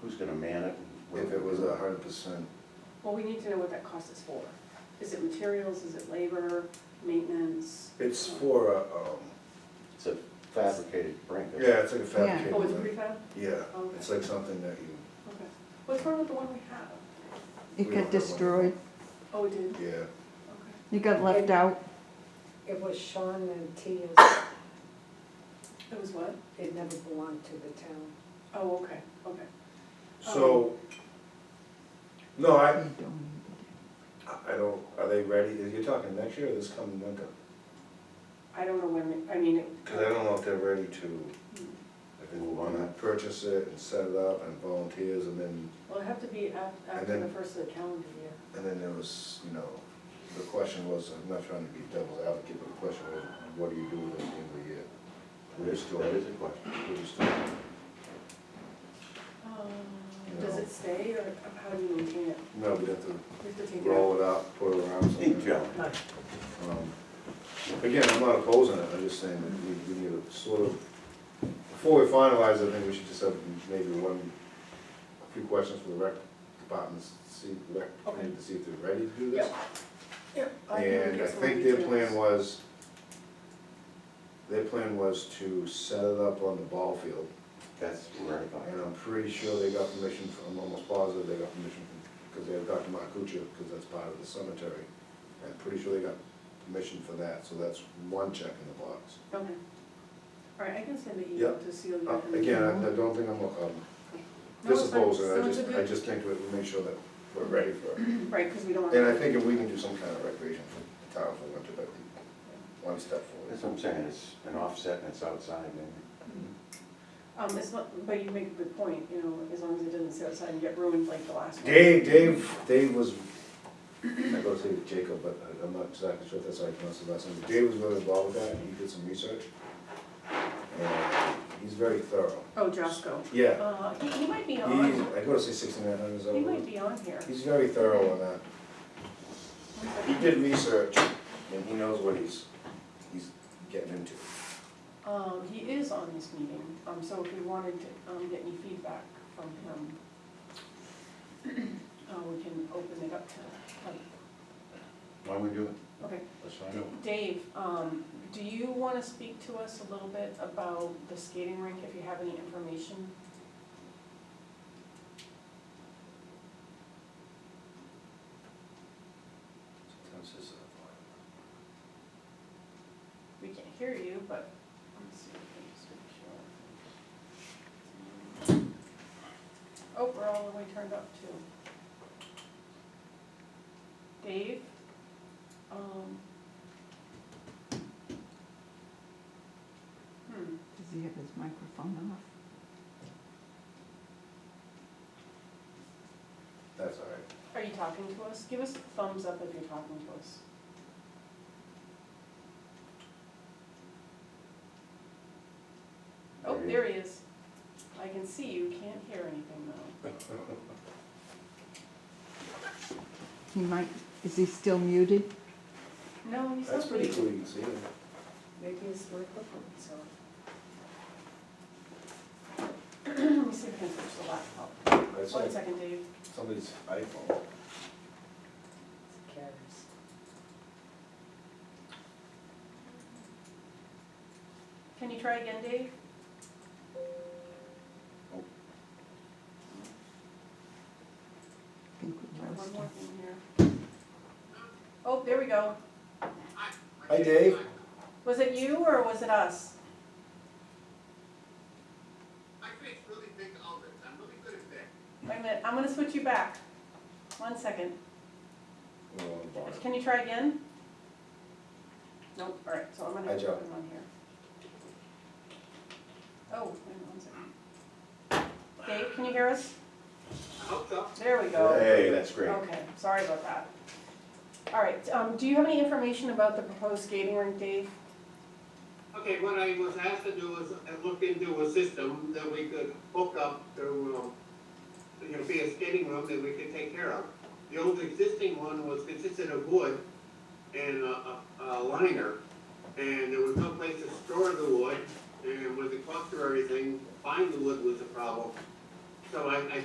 Who's gonna man it? If it was a hundred percent, Well, we need to know what that cost is for. Is it materials, is it labor, maintenance? it's for, a, um, It's a fabricated brink. isn't it? yeah, it's like a fabricated. Oh, it's Oh. one. prefab? Yeah, Okay. it's like something that you, Okay. What's wrong with the one we have? We It don't got have one. destroyed, Oh, it did? yeah, Okay. it got left out, It was Sean and Tia's, It was what? it never belonged to the town. Oh, okay, okay. Oh. so, no, I, we don't need I I don't, are they ready, you're talking next year or this coming winter? I don't know when, I mean, it- Cause I don't know if they're ready to, if they Move on wanna that. purchase it and set it up and volunteers and then, well, it'd have to be af- after the first of the calendar year. and then there was, you know, the question was, I'm not trying to be devil's advocate, but the question was, what do you do at the end of the year? That is, that is a question. What do you store? Um, Does it stay, or how do you maintain it? No, we have to We have to take it out? roll it up, put it around somewhere. Ink job. Um, Again, I'm not opposing it, I'm just saying that we, we need to sort of, before we finalize, I think we should just have maybe one, a few questions for the rec departments, see, rec, committee to see if they're ready to do this. Yep. Yep. can And I get some more think their details. plan was, their plan was to set it up on the ball field. That's where I thought. And I'm pretty sure they got permission from, I'm almost positive they got permission from, because they had Dr. Marcucci, because that's part of the cemetery. I'm pretty sure they got permission for that, so that's one check in the box. Okay. All right, I can send an email Yep. to Celia. Uh, and- Again, I I don't think I'm, um, No, it's fine. disopposing, I No, it's just, a I good- just think that we make sure that we're ready for it. Right, because we don't want. And I think if we can do some kind of recreation for the town for winter, that'd be one step forward. That's what I'm saying, it's an offset and it's outside and Um, it's not, but you make a good point, you know, as long as it doesn't sit outside and get ruined like the last one. Dave, Dave, Dave was, I go say Jacob, but I- I'm not exactly sure if that's how you pronounce his last name. but Dave was really involved with that, and he did some research. And he's very thorough. Oh, Josco. Yeah, Uh, he, he might be he's, on, I go to say sixty-nine hundred, is that he what it might is? be on here. He's very thorough on that. One He second. did research, and he knows what he's, he's getting into. Um, he is on this meeting, um, so if we wanted to, um, get any feedback from him, uh, we can open it up to, like, why would we do it? okay. Let's find out. Dave, um, do you want to speak to us a little bit about the skating rink, if you have any information? uh, We can't hear you, but let's see if we can switch your- Oh, we're all the way turned up too. Dave? Um. Hmm, it. Does he have his microphone off? That's all right. are you talking to us? Give us a thumbs up if you're talking to us. Oh, Maybe. there he is. I can see you, can't hear anything though. He might, is he still muted? No, he's not. That's pretty leaving. cool, you can see it. Maybe it's microphone's on. Let me see if I can switch the laptop. That's One like second, Dave. somebody's iPhone. It's Karen's. Can you try again, Dave? I think we One lost more him. thing here. Oh, there we go. Hi, Dave. Was it you or was it us? I create really big omelets. I'm really good at that. Wait a minute, I'm gonna switch you back. One second. We're on the bar. Can you try again? Nope, all right, so I'm gonna Hi, have to Joe. put him on here. Oh, wait one second. Dave, can you hear us? I hope so. There we go. Hey, that's great. Okay, sorry about that. All right, um, do you have any information about the proposed skating rink, Dave? Okay, what I was asked to do was I looked into a system that we could hook up to, uh, you know, be a skating room that we could take care of. The old existing one was consisted of wood and a, a a liner, and there was no place to store the wood, and with the cost of everything, buying the wood was a problem. So I, I